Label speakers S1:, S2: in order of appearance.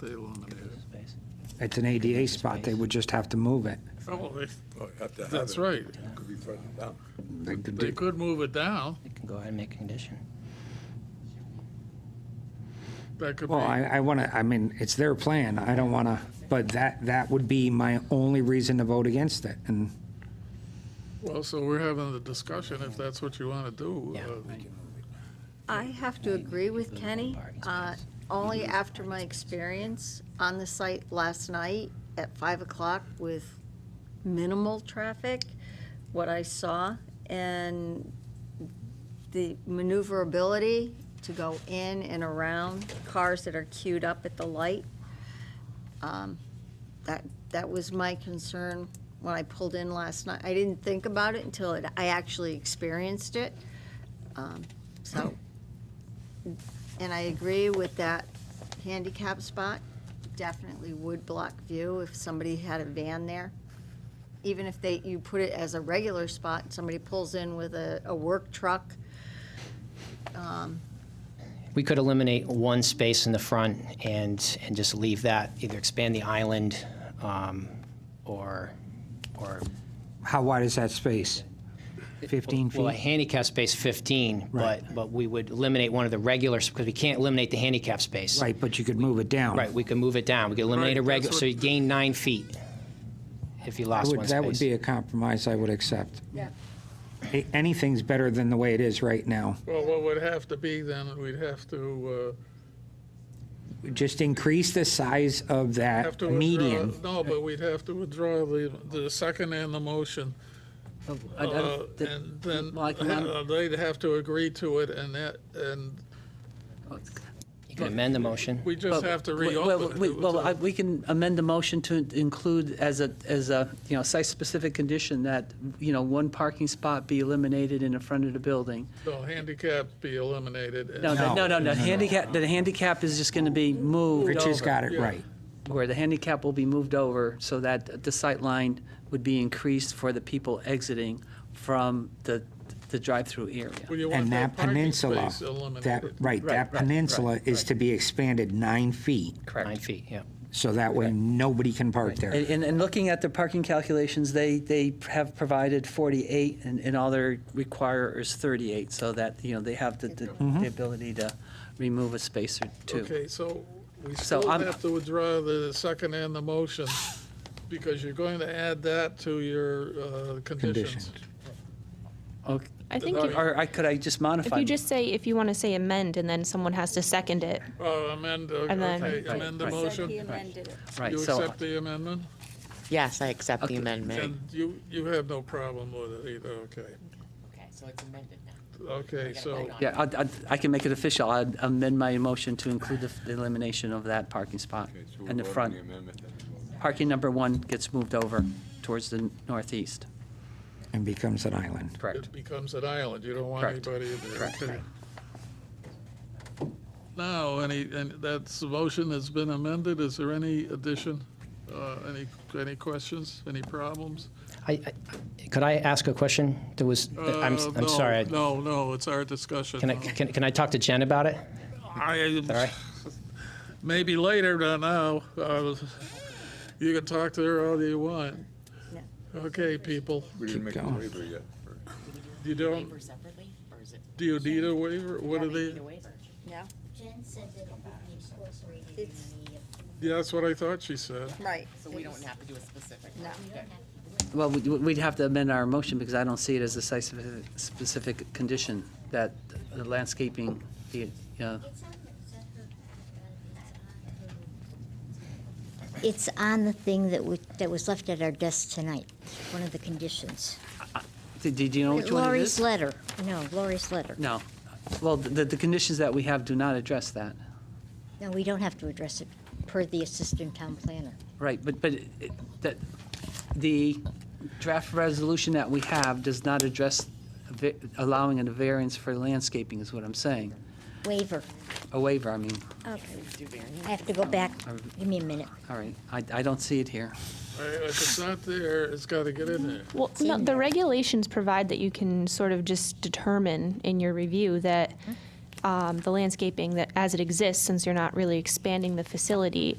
S1: Table on the middle.
S2: It's an ADA spot, they would just have to move it.
S1: Oh, they,
S3: Well, you have to have
S1: that's
S3: it.
S1: right.
S3: It Could be further down.
S2: They could
S1: They
S2: do-
S1: could move it down.
S4: They can go ahead and make a condition.
S1: That could be,
S2: Well, I,
S1: I
S2: I want to, I mean, it's their plan, I don't want to, but that, that would be my only reason to vote against it, and
S1: well, so we're having the discussion if that's what you want to do.
S4: Yeah.
S1: Uh,
S5: I have to agree with Kenny,
S4: Parking
S5: uh,
S4: space.
S5: only after my experience on the site last night at 5 o'clock with minimal traffic, what I saw, and the maneuverability to go in and around cars that are queued up at the light. Um, That, that was my concern when I pulled in last night. I didn't think about it until it- I actually experienced it. Um, So, and I agree with that handicap spot, definitely would block view if somebody had a van there. Even if they, you put it as a regular spot, and somebody pulls in with a, a work truck,
S4: We could eliminate one space in the front and, and just leave that, either expand the island, um, or, or.
S2: how wide is that space? 15
S4: Well, a
S2: feet?
S4: handicap space fifteen, but, but we would eliminate one of the regulars, because we can't eliminate the handicap space.
S2: Right, but you could move it down.
S4: Right, we could move it down, we could eliminate a
S1: Right,
S4: regular,
S1: that's
S4: so
S1: what-
S4: you gain nine feet if you
S2: That
S4: lost one
S2: would,
S4: space.
S2: that would be a compromise I would accept.
S5: Yeah.
S2: A- Anything's better than the way it is right now.
S1: Well, what would have to be then, we'd have to,
S2: Just increase the size of
S1: uh, have
S2: that
S1: to withdraw.
S2: median.
S1: No, but we'd have to withdraw the, the second and the motion.
S6: I- I don't-
S1: uh,
S6: the-
S1: And then
S6: Mike, I'm-
S1: uh, they'd have to agree to it and that, and
S4: You could amend the motion.
S1: we just have to
S6: Well, well,
S1: reopen.
S6: we-
S1: it.
S6: Well, I- we can amend the motion to include as a, as a, you know, site-specific condition that, you know, one parking spot be eliminated in the front of the building.
S1: So handicap be eliminated. and-
S6: No, no, no, no, no, handicap, the handicap is just going to be moved
S2: Rich has
S6: over,
S2: got it right.
S6: where the handicap will be moved over so that the sight line would be increased for the people exiting from the, the drive-through area.
S1: Well, you want
S2: And that
S1: parking
S2: peninsula,
S1: space
S2: that,
S1: eliminated.
S2: right, that peninsula is to be expanded nine feet,
S4: Nine feet, yeah.
S2: so that way nobody can park there.
S6: And, and- and looking at their parking calculations, they, they have provided 48, and, and all they require is 38, so that, you know, they have the, the the ability to remove a space or two.
S1: Okay, so we
S6: So
S1: still
S6: I'm-
S1: have to withdraw the second and the motion, because you're going to add that to your uh, conditions.
S2: Conditions.
S6: Okay.
S7: I think if,
S6: Or I, could I just modify?
S7: if you just say, if you want to say amend, and then someone has to second it.
S1: Uh, Amend, uh,
S7: And then-
S1: okay,
S6: Right,
S1: amend the
S6: right.
S5: said he
S1: motion.
S5: amended it.
S6: Right,
S1: You
S6: so,
S1: accept the amendment?
S8: Yes, I accept the
S6: Okay.
S8: amendment.
S1: And you, you have no problem with it either, okay.
S8: Okay, so it's amended now.
S1: Okay, so,
S6: yeah, I, I- I can make it official, I would amend my motion to include the f- the elimination of that parking spot
S3: Okay, so we're
S6: in the
S3: voting
S6: front.
S3: the amendment that we voted.
S6: Parking number one gets moved over towards the northeast.
S2: And becomes an island.
S6: Correct.
S1: it becomes an island, you don't want
S6: Correct.
S1: anybody in there. okay. Now, any, and that's, the motion has been amended, is there any addition? Uh, Any, any questions, any problems?
S4: I, I- could I ask a question? There was, I'm,
S1: Uh,
S4: I'm
S1: no,
S4: sorry. I-
S1: No, no, it's our discussion.
S4: Can I, can, can I talk to Jen about it?
S1: I-
S4: All right.
S1: Maybe later, not now. Uh, You can talk to her all you want.
S5: Yeah.
S1: Okay, people,
S3: We didn't make a
S2: going.
S3: waiver yet.
S1: you don't,
S8: separately, or is it?
S1: do you need a waiver? What are they,
S5: Yeah,
S9: Jen said that it would be incorporated in the
S5: It's-
S1: yeah, that's what I thought she said.
S5: right.
S8: So we don't have to do a specific?
S5: No.
S6: Well, we'd- we'd have to amend our motion because I don't see it as a site-specific condition that the landscaping, be, uh,
S9: It's on the, it's on the. It's on the thing that was, that was left at our desk tonight, one of the conditions.
S6: did did you know Oh, which one it
S9: Lori's
S6: is?
S9: letter, no, Lori's letter.
S6: No. Well, the, the conditions that we have do not address that.
S9: No, we don't have to address it, per the assistant town planner.
S6: Right, but, but it- that, the draft resolution that we have does not address a va- allowing a variance for landscaping is what I'm saying.
S9: Waiver.
S6: A waiver, I mean,
S9: Okay. I have to go back, give me a minute.
S6: all right. I, I don't see it here.
S1: I- If it's not there, it's got to get in there.
S7: Well, no, the regulations provide that you can sort of just determine in your review Mm-hmm. that um, the landscaping that as it exists, since you're not really expanding the facility,